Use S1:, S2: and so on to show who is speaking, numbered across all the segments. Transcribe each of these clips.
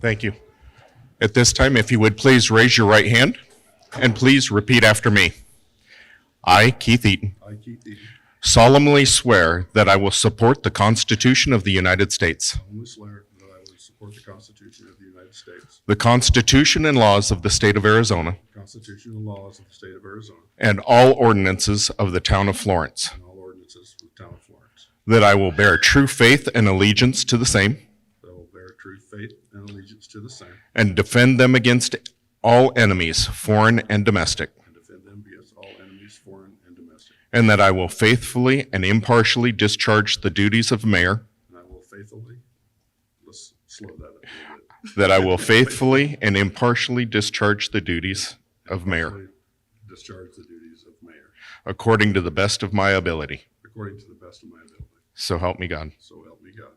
S1: Thank you. At this time, if you would please raise your right hand and please repeat after me. I, Keith Eaton,
S2: I, Keith Egan,
S1: solemnly swear that I will support the Constitution of the United States,
S2: solemnly swear that I will support the Constitution of the United States,
S1: the Constitution and laws of the State of Arizona,
S2: the Constitution and laws of the state of Arizona,
S1: and all ordinances of the Town of Florence,
S2: and all ordinances of the town of Florence,
S1: that I will bear true faith and allegiance to the same,
S2: that I will bear true faith and allegiance to the same,
S1: and defend them against all enemies, foreign and domestic,
S2: and defend them against all enemies, foreign and domestic,
S1: and that I will faithfully and impartially discharge the duties of mayor
S2: and I will faithfully, let's slow that up a
S1: That I will faithfully and impartially discharge the duties of
S2: little
S1: mayor
S2: bit, discharge the duties of mayor
S1: according to the best of my ability.
S2: according to the best of my ability,
S1: So help me God.
S2: so help me God.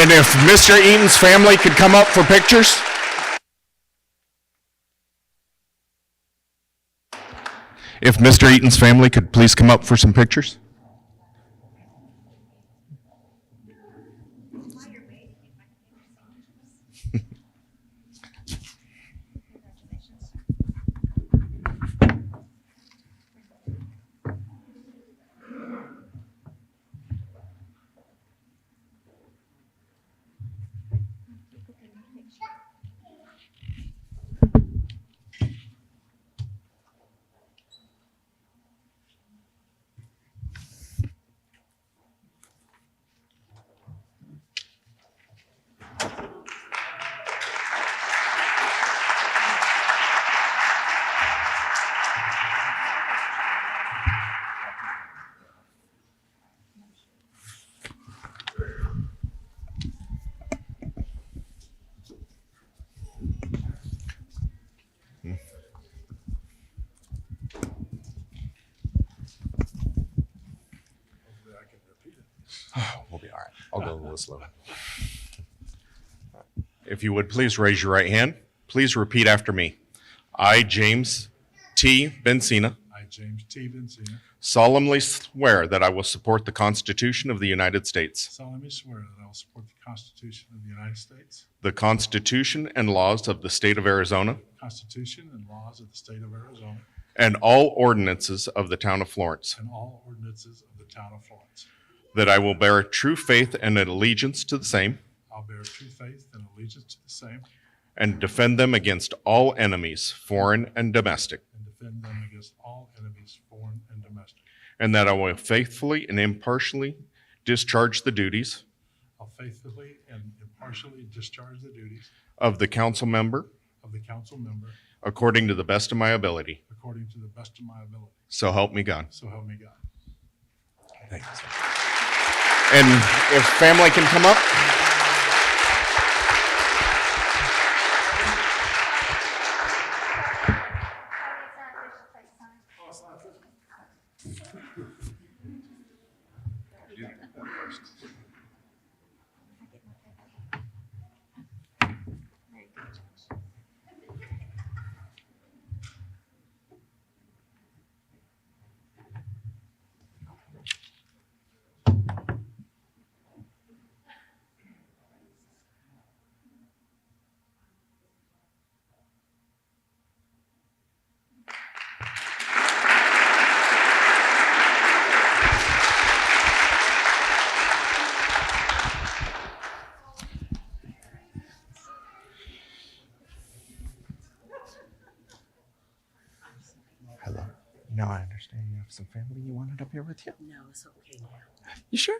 S1: And if Mr. Eaton's family could come up for pictures? If Mr. Eaton's family could please come up for some pictures? We'll be all right. I'll go a little slow. If you would please raise your right hand, please repeat after me. I, James T. Bensina,
S3: I, James T. Vincent,
S1: solemnly swear that I will support the Constitution of the United States.
S3: solemnly swear that I will support the Constitution of the United States,
S1: The Constitution and laws of the State of Arizona
S3: the Constitution and laws of the state of Arizona,
S1: and all ordinances of the Town of Florence.
S3: and all ordinances of the town of Florence.
S1: That I will bear true faith and allegiance to the same
S3: I'll bear true faith and allegiance to the same
S1: and defend them against all enemies, foreign and domestic.
S3: and defend them against all enemies, foreign and domestic.
S1: And that I will faithfully and impartially discharge the duties
S3: I'll faithfully and impartially discharge the duties
S1: of the council member
S3: of the council member
S1: according to the best of my ability.
S3: according to the best of my ability.
S1: So help me God.
S3: So help me God.
S1: Thank you, sir. And if family can come up. Hello. Now I understand you have some family you wanted up here with you.
S4: No, it's okay now.
S1: You sure?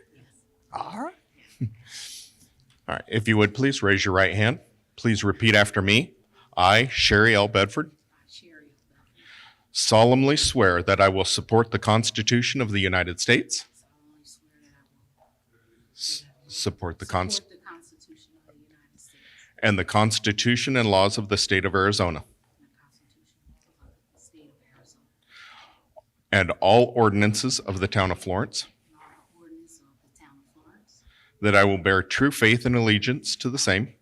S1: All right. All right. If you would please raise your right hand. Please repeat after me. I, Sherry L. Bedford,
S4: Sherry,
S1: solemnly swear that I will support the Constitution of the United States,
S4: solemnly swear that I will
S1: s- support the cons,
S4: support the Constitution of the United States
S1: and the Constitution and laws of the state of Arizona,
S4: and the Constitution of the State of Arizona
S1: and all ordinances of the town of Florence,
S4: and all the ordinances of the town of Florence.
S1: that I will bear true faith and allegiance to the same,
S4: I will bear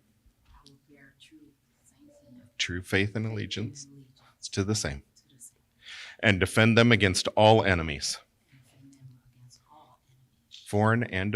S4: true faith and
S1: true faith and allegiance
S4: allegiance
S1: to the same,
S4: to the same
S1: and defend them against all enemies,
S4: and defend them against all enemies,
S1: foreign and